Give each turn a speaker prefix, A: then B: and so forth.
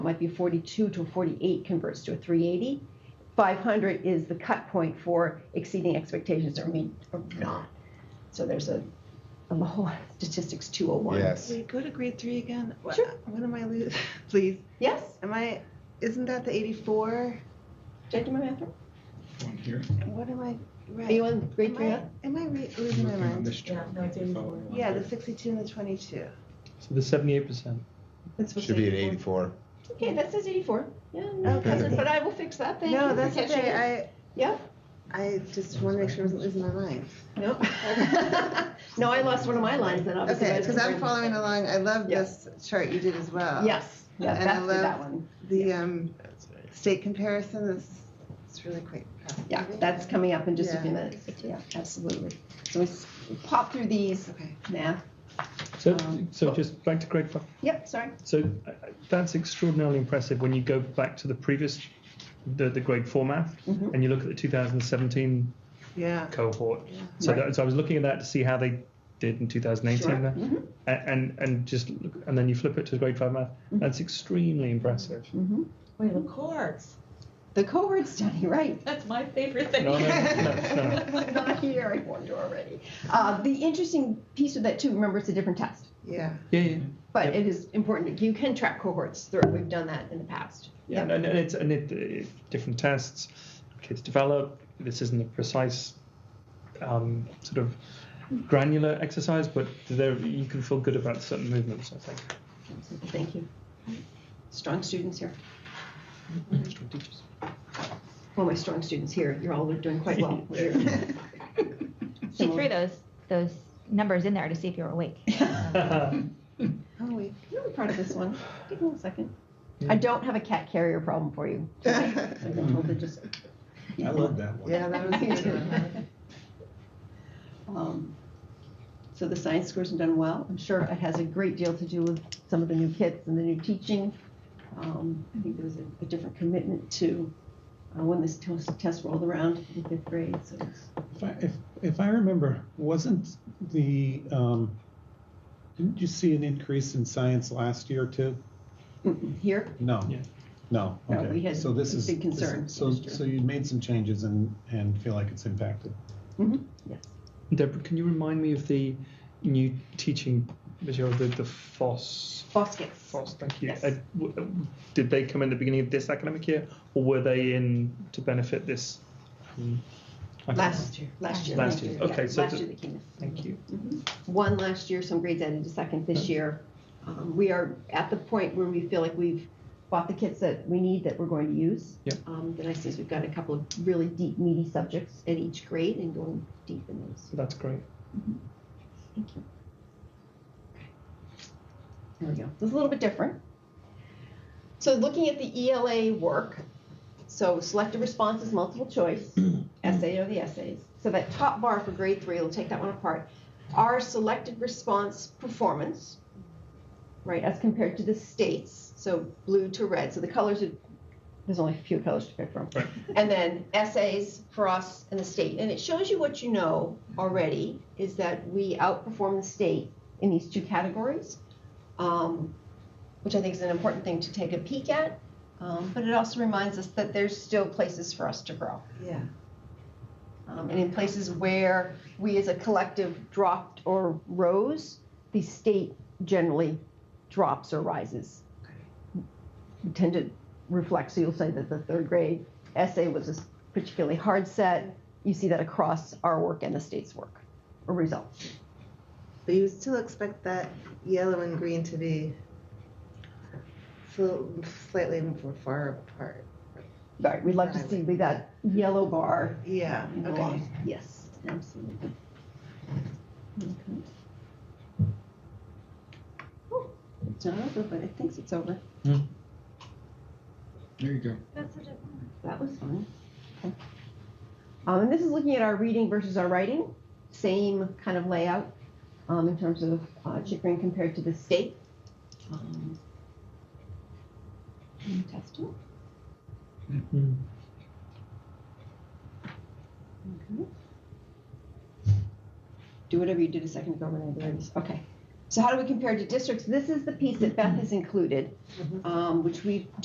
A: it might be 42 to 48 converts to a 380. 500 is the cut point for exceeding expectations or meet or not. So there's a, a whole lot of statistics 201.
B: Yes.
C: We go to grade three again. Wha-
A: Sure.
C: What am I losing? Please.
A: Yes?
C: Am I? Isn't that the 84?
A: Did I do my math wrong?
D: One here.
C: What am I? Right.
A: Are you on grade
C: am
A: three?
C: I, am I re- losing my
D: Looking on
C: mind?
D: this chart.
E: Yeah, no, it's
D: if you follow
E: 84.
D: along
C: Yeah,
D: here.
C: the 62 and the 22.
F: So the seventy-eight percent.
C: It's supposed
B: Should
C: to
B: be an 84.
A: Okay, that says 84. Yeah, no,
C: Okay.
A: cousin, but I will fix that. Thank you.
C: no,
A: for
C: that's
A: catching
C: okay.
A: it.
C: I
A: Yeah.
C: I just want to make sure I wasn't losing my mind.
A: No. no, I lost one of my lines then. Obviously,
C: Okay,
A: I was
C: because I'm
A: comparing-
C: following along. I love
A: Yeah.
C: this chart you did as well.
A: Yes. Yeah,
C: And I
A: that's that
C: love-
A: one.
C: The um,
B: That's it.
C: state comparison is it's really quick.
A: Yeah, that's coming up in just a few
C: Yeah.
A: minutes. Yeah, absolutely. So we s- pop through these
C: Okay.
A: now.
F: So,
A: Um,
F: so just back to grade five.
A: Yep, sorry.
F: So uh, that's extraordinarily impressive when you go back to the previous, the, the grade four math,
A: Mhm.
F: and you look at the 2017
C: Yeah.
F: cohort. So,
A: Right.
F: that, so I was looking at that to see how they did in 2018,
A: Sure.
F: there.
A: Mhm,
F: A- and and just look, and then you flip it to grade five math.
A: Mm-hmm.
F: That's extremely impressive.
A: mhm.
E: Wait, the chords.
A: The cohort study, right.
E: That's my favorite thing.
F: No, no, no, no, no.
A: It's not here, I warned you already. Uh, the interesting piece of that too, remember it's a different test,
C: Yeah.
F: Yeah, yeah.
A: but
F: Yep.
A: it is important. You can track cohorts through. We've done that in the past.
F: Yeah, and, and it's and it, it, different tests, kids develop. This isn't a precise um, sort of granular exercise, but there you can feel good about certain movements. I think.
A: Mm-hmm. Thank you. Strong students here.
F: Strong teachers.
A: Well, my strong students here, you're all doing quite well. We're-
G: She threw those those numbers in there to see if you were awake.
C: Oh wait.
A: I'm really proud of this one. Give me a second. I don't have a cat carrier problem for you. tonight. I've been told to just-
D: I love that one.
C: Yeah, that was a good one.
A: Um, So the science scores have done well. I'm sure it has a great deal to do with some of the new kits and the new teaching. Um, I think there was a a different commitment to uh, when this tos- test rolled around in fifth grade, so it's
H: If I- If, if I remember, wasn't the, um, didn't you see an increase in science last year too?
A: Mm-mm. mm-hmm, here.
H: No.
F: Yeah.
H: No,
A: No,
H: okay.
A: we had
H: So this
A: a
H: is-
A: big
H: this-
A: concern
H: So,
A: last year.
H: so you made some changes and, and feel like it's impacted.
A: Mhm. Yes.
F: Deborah, can you remind me of the new teaching material, the the FOSS?
A: Boss kits.
F: FOSS, thank you.
A: Yes.
F: Uh, w- uh, did they come in the beginning of this academic year, or were they in to benefit this? um, academic
A: Last year. Last year.
F: Last year. Okay,
A: yeah,
F: so
A: Last
F: the-
A: year they came in.
F: Thank you.
A: one last year, some grades added a second this year. Um, we are at the point where we feel like we've bought the kits that we need that we're going to use.
F: Yep.
A: Um, the nice thing is we've got a couple of really deep, meaty subjects at each grade and going deep in those.
F: So that's great.
A: Thank you. There we go. It's a little bit different. So looking at the ELA work, so selective responses, multiple choice, essay or the essays. So that top bar for grade three, we'll take that one apart. Our selected response performance, right, as compared to the states, so blue to red. So the colors are, there's only a few colors to pick from.
F: Right.
A: And then essays for us and the state. And it shows you what you know already is that we outperform the state in these two categories, um, which I think is an important thing to take a peek at. Um, but it also reminds us that there's still places for us to grow.
C: Yeah.
A: Um, and in places where we as a collective dropped or rose, the state generally drops or rises. We tend to reflect, so you'll say that the third grade essay was a particularly hard set. You see that across our work and the state's work or results.
C: But you still expect that yellow and green to be so slightly more far apart.
A: Right, we'd love to see we got yellow bar
C: Yeah. Okay.
A: involved. Yes, absolutely. Okay. Oh, It's not over, but it thinks it's over.
D: There you go.
A: That was fun. Okay. Um, and this is looking at our reading versus our writing, same kind of layout um, in terms of uh, Chickering compared to the state. Um, and test it.
F: Mm.
A: Okay. Do whatever you did a second ago when I did this. Okay. So how do we compare to districts? This is the piece that Beth has included, um, which we